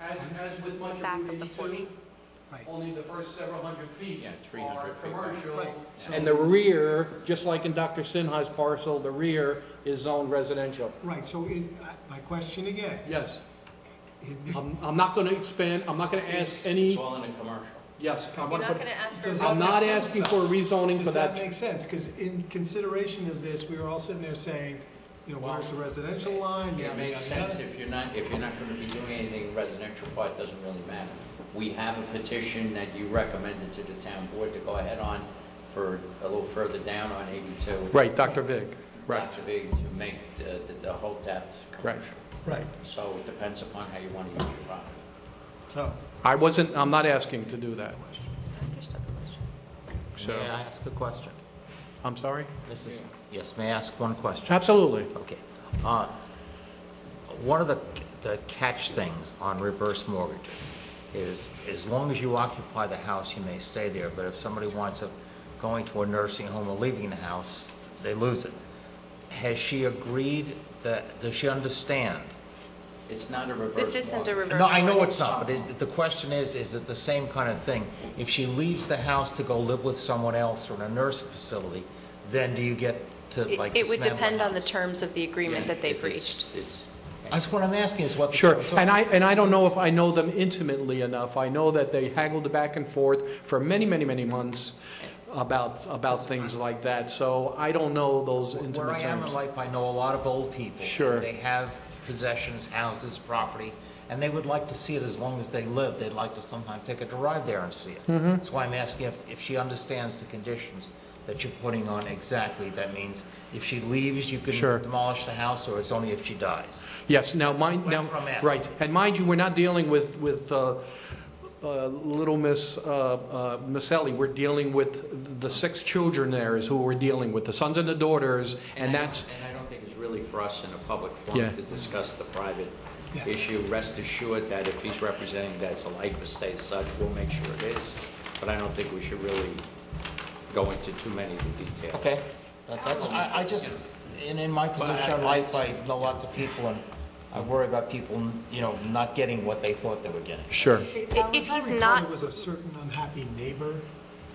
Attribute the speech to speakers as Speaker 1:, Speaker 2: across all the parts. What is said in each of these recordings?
Speaker 1: As, as with much
Speaker 2: Back
Speaker 1: of
Speaker 2: of the
Speaker 1: Route
Speaker 2: porch.
Speaker 1: 82,
Speaker 3: Right.
Speaker 1: only the first several hundred feet
Speaker 4: Yeah, 300
Speaker 1: are
Speaker 4: feet back.
Speaker 1: commercial.
Speaker 3: Right. So-
Speaker 5: And the rear, just like in Dr. Sinha's parcel, the rear is zoned residential.
Speaker 3: Right, so it, I- my question again,
Speaker 5: Yes.
Speaker 3: it
Speaker 5: I'm, I'm not gonna expand, I'm not gonna ask any,
Speaker 4: It's all in a commercial.
Speaker 5: yes. I
Speaker 2: You're
Speaker 5: wanna
Speaker 2: not
Speaker 5: put-
Speaker 2: gonna ask for.
Speaker 3: Does-
Speaker 5: I'm not
Speaker 2: variances.
Speaker 5: asking for a rezoning for
Speaker 3: Does that
Speaker 5: that.
Speaker 3: make sense? Because in consideration of this, we were all sitting there saying, you know, where's the residential line?
Speaker 4: It
Speaker 3: Yada,
Speaker 4: makes
Speaker 3: yada,
Speaker 4: sense if you're not, if you're not going to be doing anything residential part, doesn't really matter. We have a petition that you recommended to the town board to go ahead on for a little further down on 82.
Speaker 5: Right, Dr. Vig, right,
Speaker 4: To be, to make the, the- the whole depth
Speaker 5: Right.
Speaker 4: commercial.
Speaker 3: yada. Right,
Speaker 4: So it depends upon how you want to use your property.
Speaker 3: so.
Speaker 5: I wasn't, I'm not asking to do that,
Speaker 2: I understood the question.
Speaker 5: so,
Speaker 6: May I ask a question?
Speaker 5: I'm sorry?
Speaker 6: This is, yes, may I ask one question?
Speaker 5: Absolutely.
Speaker 6: Okay. Uh, One of the the catch things on reverse mortgages is, as long as you occupy the house, you may stay there, but if somebody winds up going to a nursing home or leaving the house, they lose it. Has she agreed that, does she understand?
Speaker 4: It's not a reverse
Speaker 2: This isn't a
Speaker 4: mortgage.
Speaker 2: reverse.
Speaker 6: No, I know
Speaker 2: mortgage.
Speaker 6: it's not, but is, the question is, is it the same kind of thing? If she leaves the house to go live with someone else or in a nursing facility, then do you get to
Speaker 2: It-
Speaker 6: like
Speaker 2: It would
Speaker 6: dismantle the
Speaker 2: depend on the
Speaker 6: house?
Speaker 2: terms of the agreement that they
Speaker 4: If it's-
Speaker 2: breached.
Speaker 4: It's,
Speaker 6: That's what I'm asking, is what the.
Speaker 5: Sure,
Speaker 6: terms are.
Speaker 5: and I, and I don't know if I know them intimately enough. I know that they haggled back and forth for many, many, many months about, about things like that, so I don't know those
Speaker 6: Where I
Speaker 5: intimate
Speaker 6: am in
Speaker 5: terms.
Speaker 6: life, I know a lot of old people.
Speaker 5: Sure.
Speaker 6: They have possessions, houses, property, and they would like to see it as long as they live. They'd like to sometime take a drive there and see it.
Speaker 5: Mm-hmm.
Speaker 6: That's why I'm asking if, if she understands the conditions that you're putting on exactly. That means if she leaves, you can
Speaker 5: Sure.
Speaker 6: demolish the house, or it's only if she dies.
Speaker 5: Yes, now mind,
Speaker 6: That's
Speaker 5: now,
Speaker 6: what I'm asking.
Speaker 5: right, and mind you, we're not dealing with, with uh, uh, Little Miss, uh, uh, Miss Ellie, we're dealing with the six children there is who we're dealing with, the sons and the daughters, and
Speaker 4: I don't-
Speaker 5: that's,
Speaker 4: And I don't think it's really for us in a public
Speaker 5: Yeah.
Speaker 4: forum to discuss the private
Speaker 3: Yeah.
Speaker 4: issue. Rest assured that if he's representing that it's a life estate as such, we'll make sure it is. But I don't think we should really go into too many of the details.
Speaker 6: Okay? That- That's, I, I just, and in my position in life, I know lots of people, and I worry about people, you know, not getting what they thought they were getting.
Speaker 5: sure.
Speaker 3: If
Speaker 2: If he's not-
Speaker 3: Was a certain unhappy neighbor,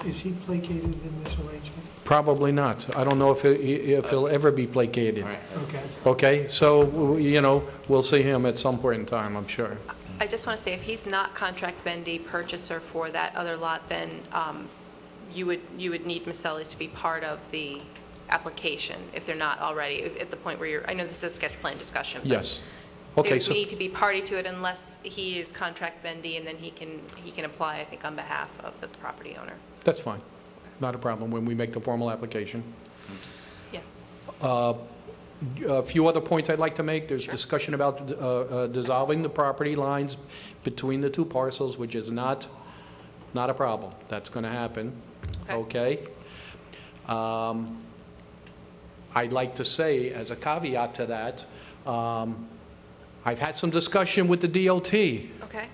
Speaker 3: is he placated in this arrangement?
Speaker 5: Probably not. I don't know if, he- if he'll ever be
Speaker 4: All
Speaker 5: placated.
Speaker 4: right.
Speaker 3: Okay,
Speaker 5: Okay, so, you know, we'll see him at some point in time, I'm sure.
Speaker 2: I just want to say, if he's not contract vendee purchaser for that other lot, then um, you would, you would need Maselli's to be part of the application, if they're not already, at the point where you're, I know this is a sketch plan discussion. but
Speaker 5: Yes.
Speaker 2: they
Speaker 5: Okay,
Speaker 2: would
Speaker 5: so,
Speaker 2: need to be party to it unless he is contract vendee, and then he can, he can apply, I think, on behalf of the property owner.
Speaker 5: that's fine. Not a problem when we make the formal application.
Speaker 2: Yeah.
Speaker 5: A few other points I'd like to make. There's discussion about uh, uh, dissolving the property lines between the two parcels, which is not, not a problem. That's going to happen. Okay? Um, I'd like to say, as a caveat to that, um, I've had some discussion with the DOT.
Speaker 2: Okay?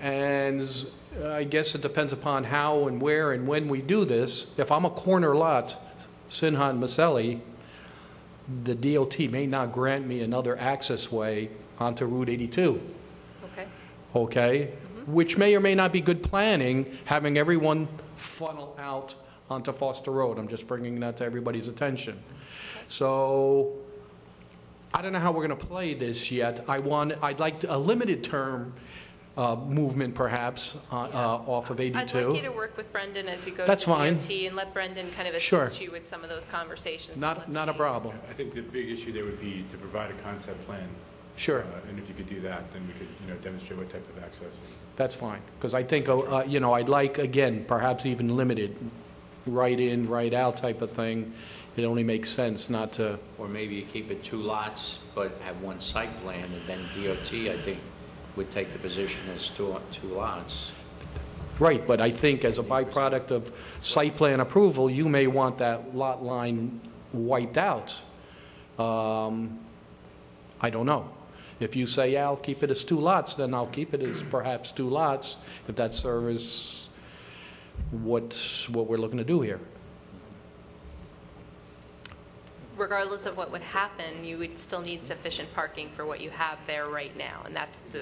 Speaker 5: And uh, I guess it depends upon how and where and when we do this. If I'm a corner lot, Sinhan and Maselli, the DOT may not grant me another access way onto Route 82,
Speaker 2: Okay?
Speaker 5: okay? Which may or may not be good planning, having everyone funnel out onto Foster Road. I'm just bringing that to everybody's attention. So I don't know how we're going to play this yet. I want, I'd like a limited term uh, movement perhaps uh, uh, off of
Speaker 2: I'd like you
Speaker 5: 82.
Speaker 2: to work with Brendan as you go to
Speaker 5: That's
Speaker 2: the
Speaker 5: fine.
Speaker 2: DOT and let Brendan kind of
Speaker 5: Sure.
Speaker 2: assist you with some of those conversations. and
Speaker 5: Not,
Speaker 2: let's
Speaker 5: not a
Speaker 2: see.
Speaker 5: problem.
Speaker 7: I think the big issue there would be to provide a concept plan.
Speaker 5: Sure.
Speaker 7: Uh, And if you could do that, then we could, you know, demonstrate what type of access. and-
Speaker 5: That's fine, because I think, uh, you know, I'd like, again, perhaps even limited, right in, right out type of thing. It only makes sense not to,
Speaker 4: Or maybe you keep it two lots, but have one site plan, and then DOT, I think, would take the position as two, two lots.
Speaker 5: right, but I think as a byproduct of site plan approval, you may want that lot line wiped out. Um, I don't know. If you say, yeah, I'll keep it as two lots, then I'll keep it as perhaps two lots, if that serves what, what we're looking to do here.
Speaker 2: regardless of what would happen, you would still need sufficient parking for what you have there right now, and that's the